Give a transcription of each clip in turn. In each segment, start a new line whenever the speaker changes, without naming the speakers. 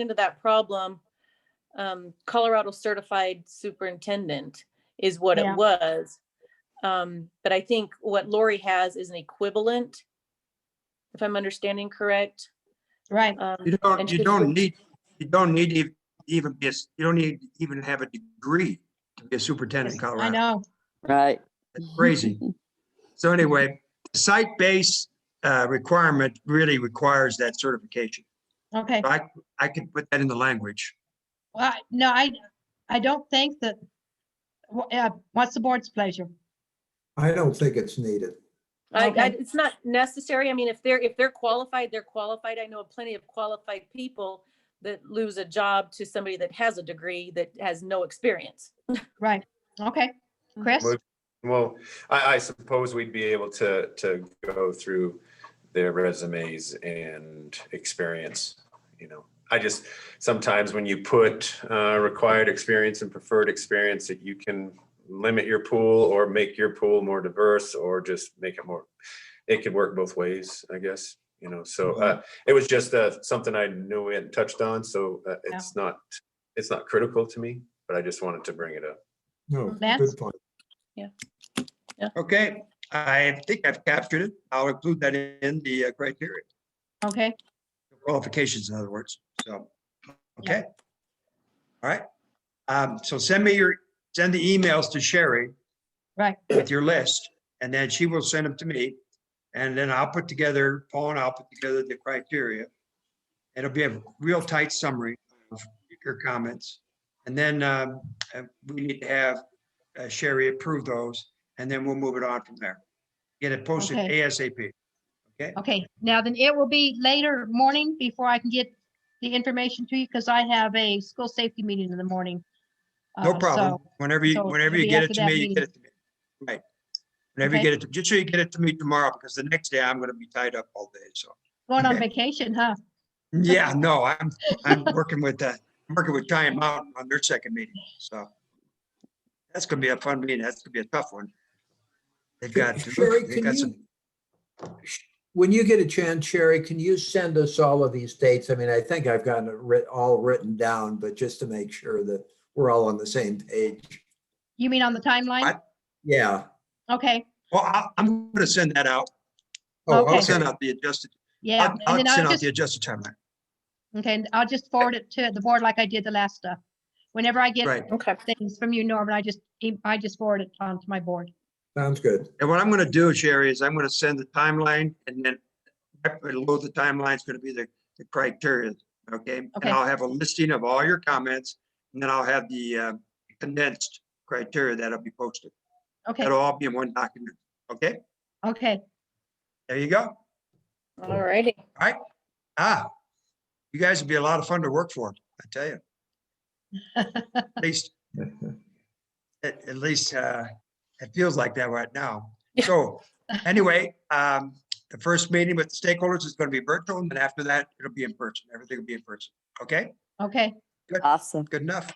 into that problem, um, Colorado certified superintendent is what
Yeah.
it was. Um, but I think what Lori has is an equivalent, if I'm understanding correct.
Right,
Um,
You
and
don't, you
should
don't
we-
need, you don't need to even be, a s- you don't need to even have a degree to be a superintendent in
I
Colorado.
know.
Right.
That's Crazy. So anyway, site-based uh, requirement really requires that certification.
Okay.
I, I can put that in the language.
Well, I- no, I, I don't think that, wha- uh, what's the board's pleasure?
I don't think it's needed.
I, I,
Okay.
it's not necessary. I mean, if they're, if they're qualified, they're qualified. I know of plenty of qualified people that lose a job to somebody that has a degree that has no experience.
Right, okay. Chris?
Mo- Well, I, I suppose we'd be able to, to go through their resumes and experience, you know. I just, sometimes when you put, uh, required experience and preferred experience, that you can limit your pool or make your pool more diverse or just make it more, it could work both ways, I guess, you know, so, uh, it was just, uh, something I knew we hadn't touched on, so, uh, it's not, it's not critical to me, but I just wanted to bring it up.
No,
Lance?
good point.
Okay, I think I've captured it. I'll include that in the uh, criteria,
Okay,
qualifications, in other words, so, okay? All right, Um, so send me your, send the emails to Sherry
right,
with your list, and then she will send them to me. And then I'll put together, Paul and I'll put together the criteria. It'll be a real tight summary of your comments. And then um, uh, we need to have uh, Sherry approve those, and then we'll move it on from there. Get it posted
Okay.
ASAP.
okay. Now then, it will be later morning before I can get the information to you because I have a school safety meeting in the morning.
No
Uh,
problem.
so-
Whenever you,
so
whenever
it'll
you
be
get
after
it to
that
me, you get
meeting.
it to me. Right. Whenever you
Okay.
get it, to- just so you get it to me tomorrow, because the next day I'm going to be tied up all day, so.
Going on
Okay.
vacation, huh?
Yeah, no, I'm, I'm working with, uh, I'm working with Giant Mountain on their second meeting, so. That's gonna be a fun meeting. That's gonna be a tough one. They've got,
Sherry,
they've
can
got
you?
some,
Sh- When you get a chance, Sherry, can you send us all of these dates? I mean, I think I've gotten it writ, all written down, but just to make sure that we're all on the same page.
You mean on the timeline?
What?
Yeah.
Okay,
well, I, I'm gonna send that out.
Oh,
Okay.
I'll send out the adjusted,
yeah.
I'll,
And
I'll
then
send
I'll
out
just,
the adjusted timeline.
okay, and I'll just forward it to the board like I did the last stuff. Whenever I get
Right.
Okay.
things from you, Norman, I just, e- I just forward it on to my board.
Sounds good.
And what I'm gonna do, Sherry, is I'm gonna send the timeline and then right below the timeline's gonna be the, the criteria, okay? And
Okay.
I'll have a listing of all your comments and then I'll have the, uh, condensed criteria that'll be posted.
Okay,
It'll all be in one document. Okay,
okay.
there you go.
All righty.
Ah, you guys would be a lot of fun to work for, I tell you. At least, at, at least, uh, it feels like that right now.
Yeah.
So anyway, um, the first meeting with the stakeholders is going to be virtual and then after that, it'll be in person. Everything will be in person. Okay,
Okay,
Awesome.
good enough.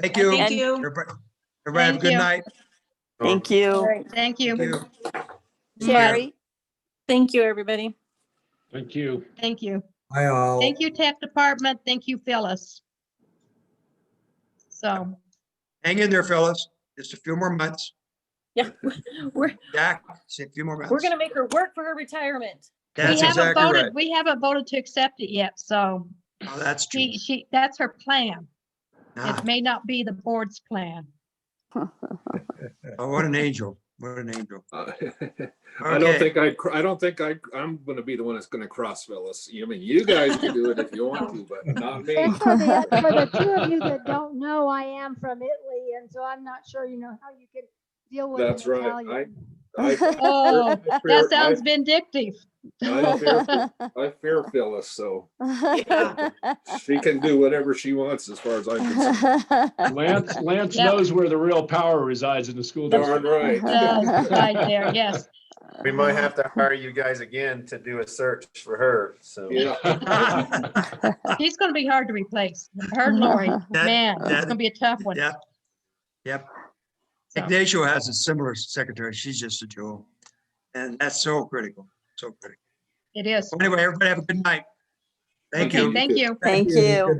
Thank you.
Thank
And-
you.
Everybody everybody have a
Thank
good
you.
night.
Thank
All
you.
right.
thank
Thank
you,
you.
Sherry,
Thank you, everybody.
Thank you.
thank you.
Hi, all.
Thank you, Tech Department. Thank you, Phyllis. So,
Hang in there, fellas. Just a few more months.
Yeah, we're,
Jack, say a few more months.
we're gonna make her work for her retirement.
we
That's
haven't
exactly right.
voted, we haven't voted to accept it yet, so
Oh, That's true.
she, she, that's her plan.
Ah.
It may not be the board's plan.
Oh, what an angel. What an angel.
Uh, I don't
Okay,
think I, cr- I don't think I, I'm gonna be the one that's gonna cross Phyllis. You- I mean, you guys can do it if you want to, but not me.
And for the, for the two of you that don't know, I am from Italy, and so I'm not sure, you know, how you can deal with. an
That's right. I-
Italian.
I-
Oh,
I fear-
that sounds vindictive.
I fear- I fear Phyllis, so she can do whatever she wants as far as I'm concerned. Lance,
Lance
Yeah.
knows where the real power resides in the school
Darn right.
district.
Does, uh, Right there, yes.
We might have to hire you guys again to do a search for her, so.
Yeah.
He's gonna be hard to replace. Her and Lori,
That-
man, it's
that-
gonna be a tough one.
yeah. Yep. Ignacio has a similar secretary. She's just a jewel. And that's so critical, so critical.
It is.
Anyway, everybody have a good night. Thank
Okay,
you.
Okay, thank you.
Thank
Good
you.